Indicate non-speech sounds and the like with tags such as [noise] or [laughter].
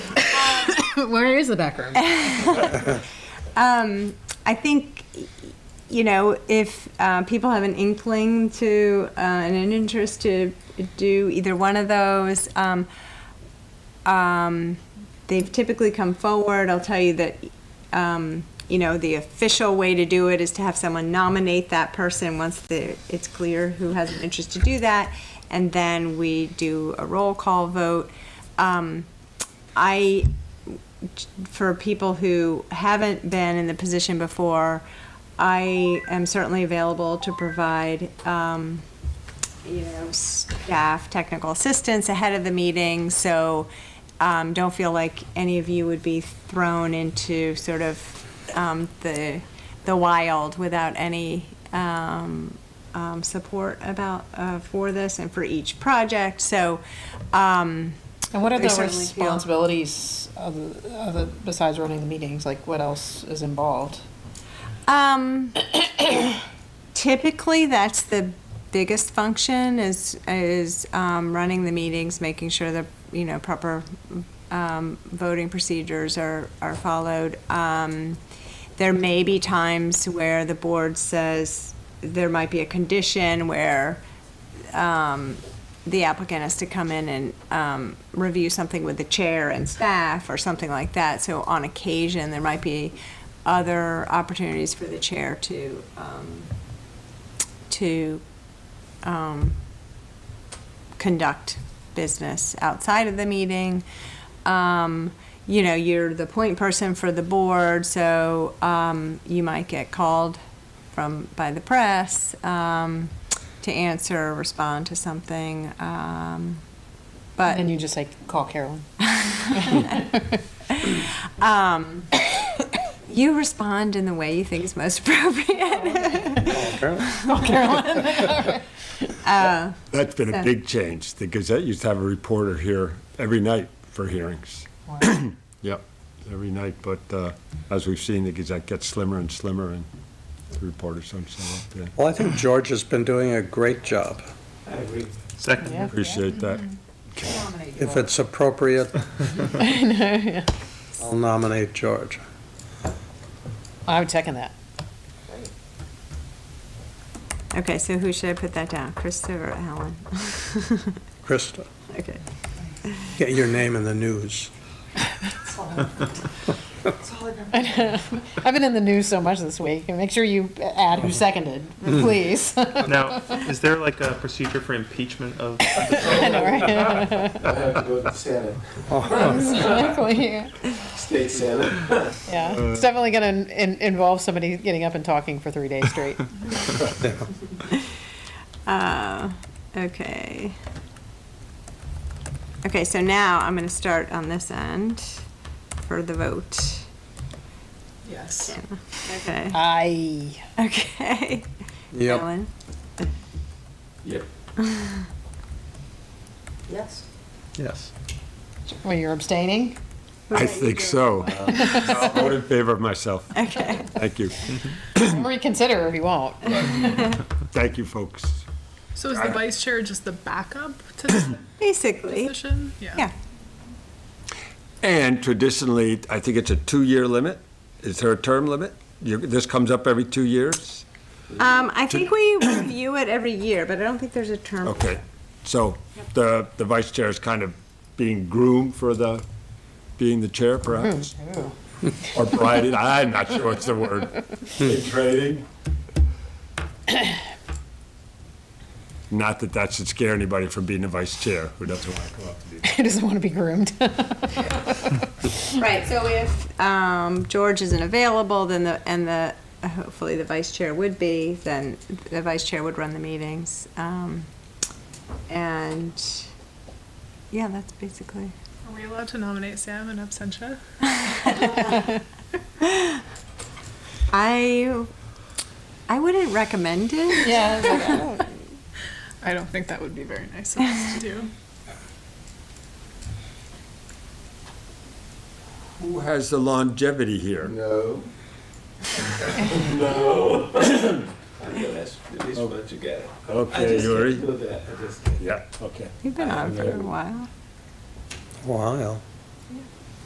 Where is the back [laughs] room? Um, I think, you know, if uh, people have an inkling to uh, and an interest to do either one of those, um, um, they've typically come forward. I'll tell you that, um, you know, the official way to do it is to have someone nominate that person once the, it's clear who has an interest to do that, and then we do a roll call vote. Um, I, for people who haven't been in the position before, I am certainly available to provide, um, you know, staff technical assistance ahead of the meeting, so um, don't feel like any of you would be thrown into sort of um, the, the wild without any um, um, support about, uh, for this and for each project, so. um, And what are I the certainly feel- responsibilities of, the- of the, besides running the meetings? Like, what else is involved? Um, typically, that's the biggest function is is um, running the meetings, making sure that you know proper um, voting procedures are are followed. Um, there may be times where the board says there might be a condition where um, the applicant has to come in and um, review something with the chair and staff or something like that. So on occasion, there might be other opportunities for the chair to, um, to um, conduct business outside of the meeting. Um, You know, you're the point person for the board, so um, you might get called from, by the press um, to answer, or respond to something. um, But. And you just like call Carolyn. Um, you respond in the way you think is most [laughs] appropriate. That's been So- a big change. The Gazette used to have a reporter here every night for hearings. [clears throat] Yep, every night, but uh, as we've seen, the Gazette gets slimmer and slimmer and the reporters don't show up. Yeah, Well, I think George has been doing a great job. Yeah. Appreciate that. If it's appropriate, I'll nominate George. I would second that. okay, so who should I put that down? Krista or Alan? Krista, okay. get your name in the news. I've been in the news so much this week. And make sure you add who seconded, please. I Now, is there like a procedure for impeachment of? know, right? I have to go to the Senate, Exactly. state Senate. Yeah. It's definitely going to in- involve somebody getting up and talking for three days straight. Uh, okay. Okay, so now I'm going to start on this end for the vote. Yes. [laughs] Okay. I. Okay. Yep, Alan? Yep. Yes. yes. Well, you're abstaining? I think [laughs] so. I'll vote in favor of myself. Okay. Thank you. Reconsider if you won't. Thank you, folks. So is the vice chair just the backup to the Basically. position? Yeah. And traditionally, I think it's a two-year limit. Is there a term limit? You- This comes up every two years? Um, I think we review it every year, but I don't think there's a term. Okay, so the, the vice chair is kind of being groomed for the, being the chair perhaps? [laughs] Or brided, I'm not sure what's the word. In training? [coughs] Not that that should scare anybody from being the vice chair, who doesn't want to come up to be. [laughs] Who doesn't want to be groomed? Right, so if um, George isn't available, then the, and the, hopefully the vice chair would be, then the vice chair would run the meetings. Um, And, yeah, that's basically, Are we allowed to nominate Sam in absentia? I, I wouldn't recommend it. Yeah. [laughs] it's like, I don't think that would be very nice of us to do. Who has the longevity here? No. No. I know that's, at least once you get it. I Okay, just Yuri? can't do that, I just can't. Yeah, okay. You've been on for a while. Wow.